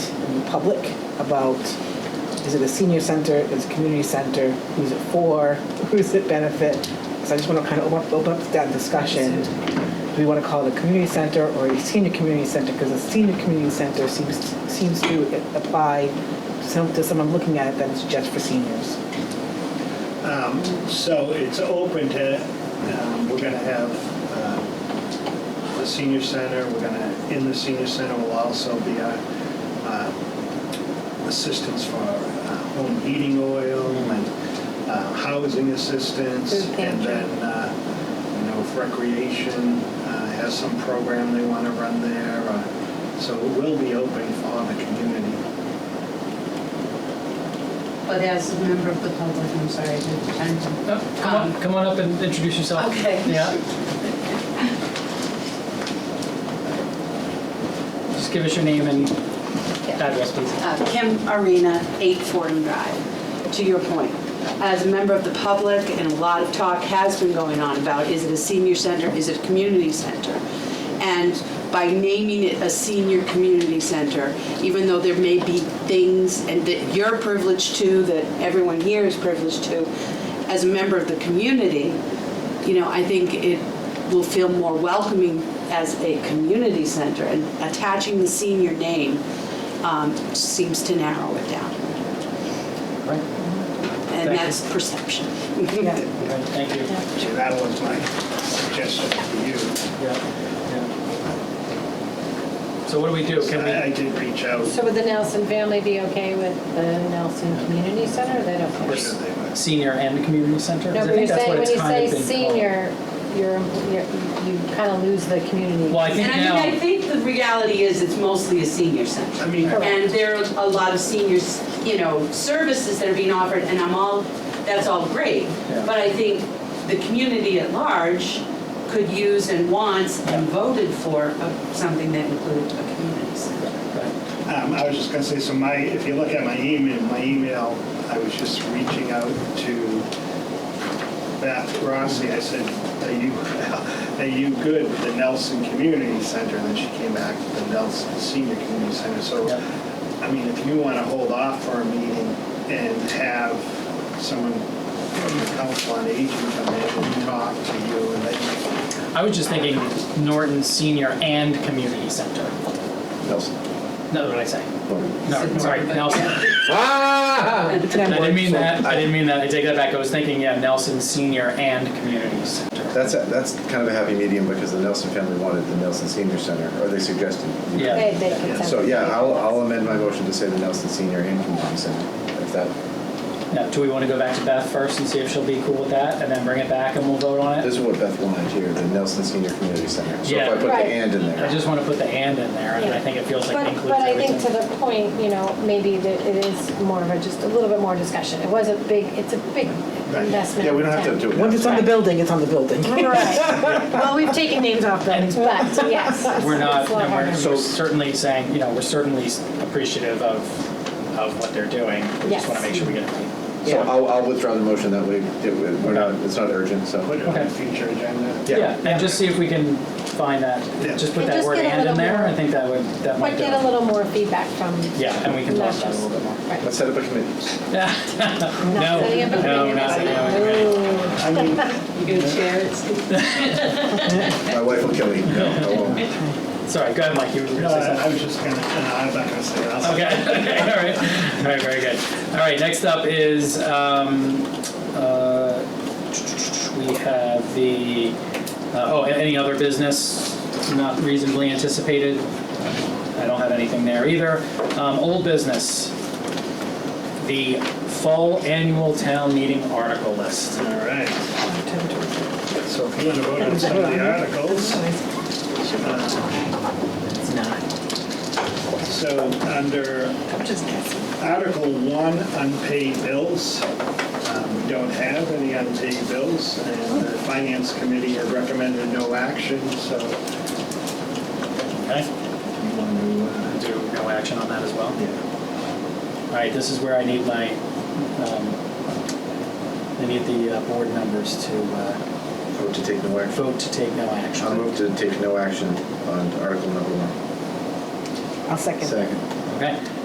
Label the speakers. Speaker 1: public about, is it a senior center, is it a community center, who's it for, who's it benefit? So I just want to kind of open up- open up that discussion. Do we want to call it a community center or a senior community center? Because a senior community center seems, seems to apply to some- to someone looking at it that it's just for seniors.
Speaker 2: Um, So it's open to, um, we're going to have um, the senior center, we're going to, in the senior center will also be our um, assistance for uh, home heating oil and uh, housing assistance.
Speaker 3: Food pantry.
Speaker 2: And then, uh, you know, if recreation uh, has some program they want to run there. uh, So it will be open for the community.
Speaker 3: But as a member of the public, I'm sorry, I didn't time
Speaker 4: Uh, Come on,
Speaker 3: Um,
Speaker 4: come on up and introduce yourself.
Speaker 3: Okay.
Speaker 4: Yeah. Just give us your name and address, please.
Speaker 3: Uh, Kim Arena, 8 Fordham Drive. To your point, as a member of the public, and a lot of talk has been going on about, is it a senior center, is it a community center? And by naming it a senior community center, even though there may be things and that you're privileged to, that everyone here is privileged to, as a member of the community, you know, I think it will feel more welcoming as a community center, and attaching the senior name um, seems to narrow it down,
Speaker 4: Right. Thank you.
Speaker 3: and that's perception.
Speaker 4: Right, Thank you.
Speaker 2: So that was my suggestion to you.
Speaker 4: Yeah, yeah. So what do we do? Can
Speaker 2: I I
Speaker 4: we,
Speaker 2: did reach out.
Speaker 5: So would the Nelson family be okay with the Nelson Community Center? or They don't care?
Speaker 2: Sure they would.
Speaker 4: senior and the community center?
Speaker 5: No,
Speaker 4: 'Cause I
Speaker 5: but you're
Speaker 4: think that's
Speaker 5: saying,
Speaker 4: what
Speaker 5: when
Speaker 4: it's
Speaker 5: you
Speaker 4: kind
Speaker 5: say
Speaker 4: of been called.
Speaker 5: senior, you're, you're- you kind of lose the community.
Speaker 4: Well, I think
Speaker 3: And I mean, I
Speaker 4: now,
Speaker 3: think the reality is it's mostly a senior center.
Speaker 2: I mean,
Speaker 3: And there are a lot of seniors, you know, services that are being offered, and I'm all, that's all great.
Speaker 4: Yeah.
Speaker 3: But I think the community at large could use and wants and voted for a- something that included a community center.
Speaker 2: um, I was just gonna say, so my, if you look at my email, my email, I was just reaching out to Beth Rossi. I said, are you, are you good with the Nelson Community Center? And then she came back with the Nelson Senior Community Center. So,
Speaker 4: Yep.
Speaker 2: I mean, if you wanna hold off for a meeting and have someone from the Council on Aging come in and talk to you and then
Speaker 4: I was just thinking Norton Senior and Community Center.
Speaker 6: Nelson.
Speaker 4: No, what did I say? No, sorry, Nelson.
Speaker 1: I
Speaker 4: Ah, I didn't mean that, I didn't mean that, I take that back, I was thinking, yeah, Nelson Senior and Community Center.
Speaker 6: That's, a- that's kind of a happy medium because the Nelson family wanted the Nelson Senior Center, or they suggested.
Speaker 4: Yeah.
Speaker 5: They- they can send
Speaker 6: So, yeah,
Speaker 5: it.
Speaker 6: I'll, I'll amend my motion to say the Nelson Senior and Community Center, if that,
Speaker 4: Now, do we want to go back to Beth first and see if she'll be cool with that, and then bring it back and we'll vote on it?
Speaker 6: this is what Beth wanted here, the Nelson Senior Community Center. So if
Speaker 4: Yeah.
Speaker 6: I put the
Speaker 5: Right.
Speaker 6: and in
Speaker 4: I
Speaker 6: there,
Speaker 4: just want to put the and in there, and I think it feels like it
Speaker 5: But,
Speaker 4: includes
Speaker 5: but I think to
Speaker 4: everything.
Speaker 5: the point, you know, maybe that it is more of a, just a little bit more discussion. It was a big, it's a big investment.
Speaker 6: yeah, we don't have to do it. now.
Speaker 1: Once it's on the building, it's on the building.
Speaker 5: Right. Well, we've taken names off buildings, but yes. it's-
Speaker 4: We're not,
Speaker 5: it's a lot
Speaker 4: and we're
Speaker 5: harder.
Speaker 4: we're certainly saying, you know, we're certainly appreciative of, of what they're doing. We just
Speaker 5: Yes.
Speaker 4: want to make sure we get it right.
Speaker 6: So I'll, I'll withdraw the motion that way, it- we're not, it's not urgent, so.
Speaker 2: put it on
Speaker 4: Okay.
Speaker 2: the future agenda.
Speaker 6: Yeah.
Speaker 4: Yeah, and just see if we can find that,
Speaker 2: Yeah.
Speaker 4: just put
Speaker 5: And
Speaker 4: that
Speaker 5: just
Speaker 4: word
Speaker 5: get a
Speaker 4: and in
Speaker 5: little
Speaker 4: there,
Speaker 5: more-
Speaker 4: I think that would, that might
Speaker 5: But
Speaker 4: do
Speaker 5: get a
Speaker 4: it.
Speaker 5: little more feedback from.
Speaker 4: Yeah, and we can
Speaker 5: Not
Speaker 4: talk about it a
Speaker 5: just-
Speaker 4: little bit more.
Speaker 5: Right.
Speaker 6: Let's set up a committee.
Speaker 4: No,
Speaker 5: Not setting up a
Speaker 4: no,
Speaker 5: committee
Speaker 4: not
Speaker 5: meeting.
Speaker 4: setting up a committee.
Speaker 2: I mean,
Speaker 3: You gonna share it, Steve?
Speaker 6: My wife will kill me. No, I won't.
Speaker 4: Sorry, go ahead, Mike, you were going
Speaker 2: No,
Speaker 4: to say something.
Speaker 2: I I was just gonna, no, I'm not gonna say that.
Speaker 4: Okay, okay, all right. All right, very good. All right, next up is, um, uh, we have the, uh, oh, any other business not reasonably anticipated? I don't have anything there either. Um, old business, the fall annual town meeting article list.
Speaker 2: All right. So if you want to vote on some of the articles.
Speaker 1: It's not.
Speaker 2: So under
Speaker 1: I'm just guessing.
Speaker 2: Article 1, unpaid bills. Um, We don't have any unpaid bills, and the Finance Committee had recommended no action, so
Speaker 4: Okay.
Speaker 2: you want to, uh,
Speaker 4: Do no action on that as well?
Speaker 2: yeah.
Speaker 4: All right, this is where I need my, um, I need the uh, board members to, uh,
Speaker 6: Vote to take no action.
Speaker 4: vote to take no
Speaker 6: I'll
Speaker 4: action.
Speaker 6: move to take no action on article number one.
Speaker 1: I'll second.
Speaker 6: Second.
Speaker 4: Okay,